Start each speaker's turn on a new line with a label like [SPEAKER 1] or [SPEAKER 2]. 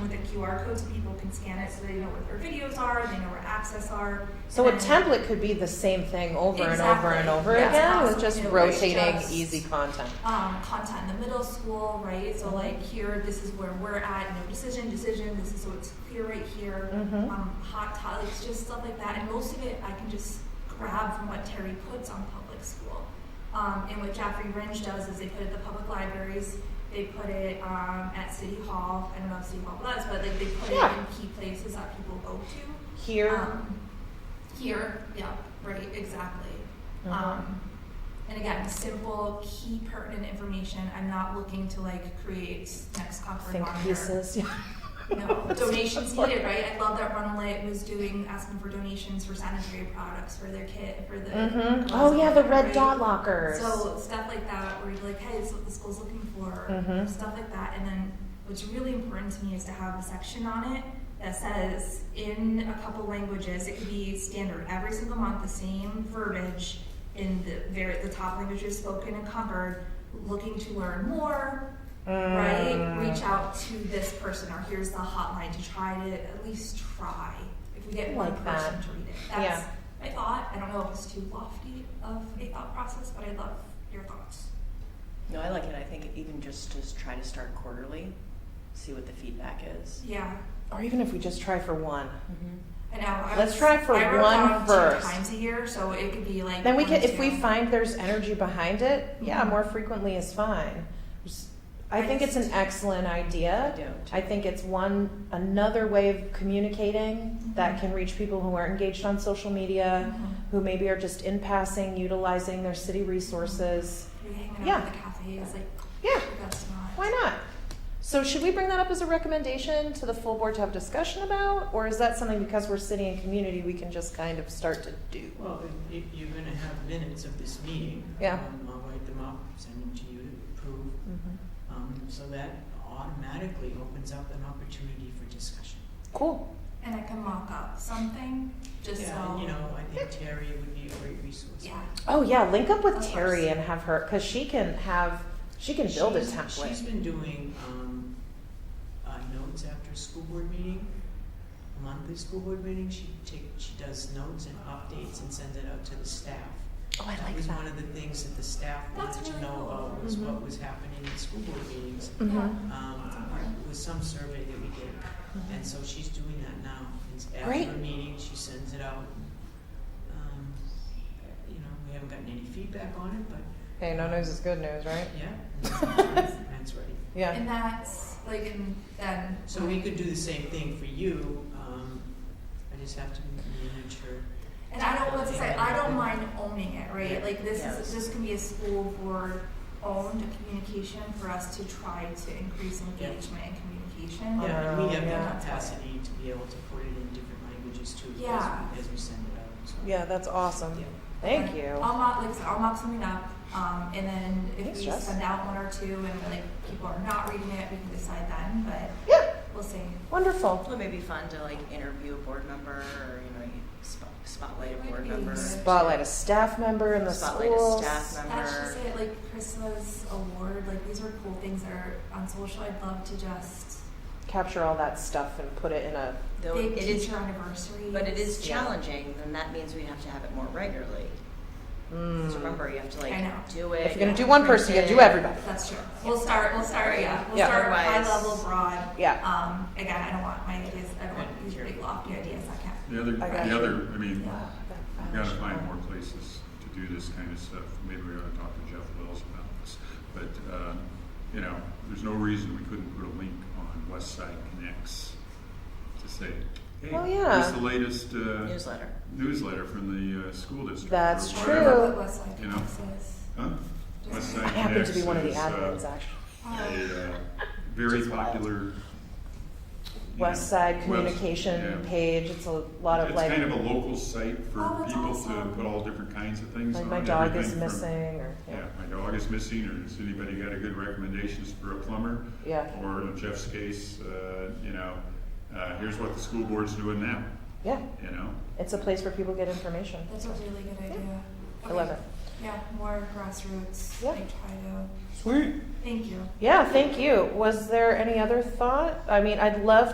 [SPEAKER 1] QR code so people can scan it so they know where their videos are, they know where access are.
[SPEAKER 2] So a
[SPEAKER 1] And-
[SPEAKER 2] template could be the same thing over and over and
[SPEAKER 1] Exactly.
[SPEAKER 2] over
[SPEAKER 1] Yeah.
[SPEAKER 2] again with
[SPEAKER 1] It's
[SPEAKER 2] just
[SPEAKER 1] possible. It's
[SPEAKER 2] rotating
[SPEAKER 1] just-
[SPEAKER 2] easy content.
[SPEAKER 1] um, content in the middle school, right? So like here, this is where we're at. No decision, decision. This is so it's clear right here.
[SPEAKER 2] Mhm.
[SPEAKER 1] Um, hot topics, just stuff like that. And most of it I can just grab from what Terry puts on public school. Um, and what Jeffrey Ringe does is they put it at the public libraries. They put it um, at City Hall. I don't know if City Hall does, but like they put
[SPEAKER 2] Yeah.
[SPEAKER 1] it in key places that people go to.
[SPEAKER 2] Here,
[SPEAKER 1] Um, here, yeah, right, exactly.
[SPEAKER 2] uh-huh.
[SPEAKER 1] Um, and again, simple, key pertinent information. I'm not looking to like create next conference
[SPEAKER 2] think pieces.
[SPEAKER 1] No, donations needed, right? I love that Runaway was doing asking for donations for sanitary products for their kit for the.
[SPEAKER 2] hmm
[SPEAKER 1] girls
[SPEAKER 2] Oh
[SPEAKER 1] out
[SPEAKER 2] yeah, the
[SPEAKER 1] there,
[SPEAKER 2] red
[SPEAKER 1] right?
[SPEAKER 2] dot lockers.
[SPEAKER 1] So stuff like that, where you're like, hey, this is what the school's looking for,
[SPEAKER 2] Mhm.
[SPEAKER 1] stuff like that. And then what's really important to me is to have a section on it that says in a couple languages, it could be standard every single month, the same verbiage in the very the top languages spoken and covered. Looking to learn more, right?
[SPEAKER 2] Mm.
[SPEAKER 1] Reach out to this person, or here's the hotline to try to at least try. If we get one
[SPEAKER 2] Like that.
[SPEAKER 1] person to read it, that's
[SPEAKER 2] Yeah.
[SPEAKER 1] my thought. I don't know if it's too lofty of a thought process, but I love your thoughts.
[SPEAKER 3] No, I like it. I think even just to try to start quarterly, see what the feedback is.
[SPEAKER 1] Yeah,
[SPEAKER 2] Or even if we just try for one.
[SPEAKER 3] Mm-hmm.
[SPEAKER 1] I know. I
[SPEAKER 2] Let's
[SPEAKER 1] was-
[SPEAKER 2] try for
[SPEAKER 1] I wrote
[SPEAKER 2] one
[SPEAKER 1] down
[SPEAKER 2] first.
[SPEAKER 1] Two times a year, so it could be like.
[SPEAKER 2] Then we
[SPEAKER 1] one
[SPEAKER 2] could,
[SPEAKER 1] or
[SPEAKER 2] if we
[SPEAKER 1] two.
[SPEAKER 2] find there's energy behind it, yeah,
[SPEAKER 1] Mhm.
[SPEAKER 2] more frequently is fine. Just- I
[SPEAKER 1] I
[SPEAKER 2] think it's an
[SPEAKER 1] just-
[SPEAKER 2] excellent
[SPEAKER 3] I
[SPEAKER 2] idea.
[SPEAKER 3] don't.
[SPEAKER 2] I think it's one, another way of communicating that
[SPEAKER 1] Mhm.
[SPEAKER 2] can reach people who aren't engaged on social media,
[SPEAKER 1] Mhm.
[SPEAKER 2] who maybe are just in passing, utilizing their city resources.
[SPEAKER 1] We hanging out
[SPEAKER 2] Yeah.
[SPEAKER 1] at the cafes, like
[SPEAKER 2] Yeah,
[SPEAKER 1] that's not.
[SPEAKER 2] why not? So should we bring that up as a recommendation to the full board to have discussion about? Or is that something because we're city and community, we can just kind of start to do?
[SPEAKER 4] Well, if- if you're gonna have minutes of this meeting.
[SPEAKER 2] Yeah.
[SPEAKER 4] um, I'll write them up, send them to you to approve,
[SPEAKER 2] Mhm.
[SPEAKER 4] um, so that automatically opens up an opportunity for discussion.
[SPEAKER 2] Cool.
[SPEAKER 1] And I can mock up something, just
[SPEAKER 4] Yeah,
[SPEAKER 1] so.
[SPEAKER 4] and you know, I think Terry would be a great resource.
[SPEAKER 1] Yeah.
[SPEAKER 2] Oh yeah, link up
[SPEAKER 1] Of
[SPEAKER 2] with
[SPEAKER 1] course.
[SPEAKER 2] Terry and have her, cause she can have, she can build a
[SPEAKER 4] She's- She's
[SPEAKER 2] template.
[SPEAKER 4] been doing, um, uh, notes after a school board meeting, monthly school board meeting, she take, she does notes and updates and sends it out to the staff.
[SPEAKER 2] Oh, I
[SPEAKER 4] That
[SPEAKER 2] like
[SPEAKER 4] was one
[SPEAKER 2] that.
[SPEAKER 4] of the things that the staff
[SPEAKER 1] That's
[SPEAKER 4] wanted to
[SPEAKER 1] really
[SPEAKER 4] know
[SPEAKER 1] cool. Mm-hmm.
[SPEAKER 4] about was
[SPEAKER 2] Mhm.
[SPEAKER 4] what was happening in school board meetings.
[SPEAKER 2] Mhm.
[SPEAKER 4] Um, it was some survey that we did, and so she's doing that now. It's
[SPEAKER 2] Great.
[SPEAKER 4] after a meeting, she sends it out. Um, you know, we haven't gotten any feedback on it, but
[SPEAKER 2] Hey, no news is good news, right?
[SPEAKER 4] yeah, that's ready.
[SPEAKER 2] Yeah.
[SPEAKER 1] And that's like, and then.
[SPEAKER 4] So we could do the same thing for you, um, I just have to manage her.
[SPEAKER 1] And I don't want to say I don't mind owning it, right?
[SPEAKER 4] Yeah.
[SPEAKER 1] Like this is
[SPEAKER 3] Yes.
[SPEAKER 1] this can be a school board owned communication for us to try to increase engagement and communication.
[SPEAKER 4] Yeah, and we have
[SPEAKER 2] yeah.
[SPEAKER 4] the capacity to be able to put it in different languages too, as
[SPEAKER 1] Yeah.
[SPEAKER 4] we, as we send it out, so.
[SPEAKER 2] Yeah, that's awesome. Thank you.
[SPEAKER 1] I'll mop like I said, I'll mop something up, um, and then if
[SPEAKER 2] Thanks,
[SPEAKER 1] we
[SPEAKER 2] Jess.
[SPEAKER 1] send out one or two and like people are not reading it, we can decide then. But
[SPEAKER 2] Yeah,
[SPEAKER 1] we'll see.
[SPEAKER 2] wonderful.
[SPEAKER 3] Well, it may be fun to like interview a board member or, you know, you spot- spotlight a board
[SPEAKER 1] Would be
[SPEAKER 3] member.
[SPEAKER 1] good.
[SPEAKER 2] Spotlight a staff member in the
[SPEAKER 3] Spotlight
[SPEAKER 2] schools.
[SPEAKER 3] a staff
[SPEAKER 1] That's just
[SPEAKER 3] member.
[SPEAKER 1] it. Like Christmas award, like these are cool things that are on social. I'd love to just
[SPEAKER 2] Capture all that stuff and put it in a.
[SPEAKER 3] Though
[SPEAKER 1] big
[SPEAKER 3] it is,
[SPEAKER 1] teacher anniversary.
[SPEAKER 3] but it is
[SPEAKER 2] Yeah.
[SPEAKER 3] challenging, then that means we have to have it more regularly. Because
[SPEAKER 2] Mm.
[SPEAKER 3] remember, you have to
[SPEAKER 1] I know.
[SPEAKER 3] like do it.
[SPEAKER 2] If you're gonna
[SPEAKER 3] you
[SPEAKER 2] do
[SPEAKER 3] have
[SPEAKER 2] one
[SPEAKER 3] to
[SPEAKER 2] person, you
[SPEAKER 3] print
[SPEAKER 2] gotta do
[SPEAKER 3] it.
[SPEAKER 2] everybody.
[SPEAKER 1] That's true. We'll start, we'll start, yeah, we'll
[SPEAKER 2] Yeah.
[SPEAKER 1] start high
[SPEAKER 3] Otherwise-
[SPEAKER 1] level, broad.
[SPEAKER 2] Yeah.
[SPEAKER 1] Um, again, I don't want my ideas, I don't want these big lofty ideas, I can't.
[SPEAKER 5] The other,
[SPEAKER 2] I got you.
[SPEAKER 5] the other, I mean,
[SPEAKER 2] Wow,
[SPEAKER 5] we
[SPEAKER 2] that
[SPEAKER 5] gotta
[SPEAKER 2] file
[SPEAKER 5] find
[SPEAKER 2] show.
[SPEAKER 5] more places to do this kind of stuff. Maybe we ought to talk to Jeff Wells about this. But, uh, you know, there's no reason we couldn't put a link on West Side Connects to say, hey,
[SPEAKER 2] Oh,
[SPEAKER 5] here's
[SPEAKER 2] yeah.
[SPEAKER 5] the latest uh,
[SPEAKER 3] Newsletter.
[SPEAKER 5] newsletter from the uh, school district. or
[SPEAKER 2] That's
[SPEAKER 5] whatever.
[SPEAKER 2] true.
[SPEAKER 1] But West Side
[SPEAKER 5] You know.
[SPEAKER 1] Texas.
[SPEAKER 5] Huh? West
[SPEAKER 2] I
[SPEAKER 5] Side
[SPEAKER 2] happen
[SPEAKER 5] Connects
[SPEAKER 2] to be one of the
[SPEAKER 5] is uh,
[SPEAKER 2] admins, actually.
[SPEAKER 1] Um,
[SPEAKER 5] a uh, very
[SPEAKER 2] Just wild.
[SPEAKER 5] popular. you
[SPEAKER 2] West
[SPEAKER 5] know,
[SPEAKER 2] Side
[SPEAKER 5] webs-
[SPEAKER 2] communication
[SPEAKER 5] yeah.
[SPEAKER 2] page, it's a lot of
[SPEAKER 5] it's
[SPEAKER 2] like,
[SPEAKER 5] kind of a local site
[SPEAKER 1] Oh,
[SPEAKER 5] for
[SPEAKER 1] that's
[SPEAKER 5] people
[SPEAKER 1] awesome.
[SPEAKER 5] to put all different kinds of things
[SPEAKER 2] like
[SPEAKER 5] on.
[SPEAKER 2] my dog is
[SPEAKER 5] everything from-
[SPEAKER 2] missing, or,
[SPEAKER 5] yeah,
[SPEAKER 2] yeah,
[SPEAKER 5] my dog is missing, or has anybody got a good recommendations for a plumber?
[SPEAKER 2] yeah,
[SPEAKER 5] Or in Jeff's case, uh, you know, uh, here's what the school board's doing now,
[SPEAKER 2] yeah,
[SPEAKER 5] you know?
[SPEAKER 2] it's a place where people get information,
[SPEAKER 1] That's a really good idea.
[SPEAKER 2] I love it.
[SPEAKER 1] Yeah, more grassroots,
[SPEAKER 2] Yeah.
[SPEAKER 1] like try to,
[SPEAKER 5] Sweet.
[SPEAKER 1] thank you.
[SPEAKER 2] Yeah, thank you, was there any other thought? I mean, I'd love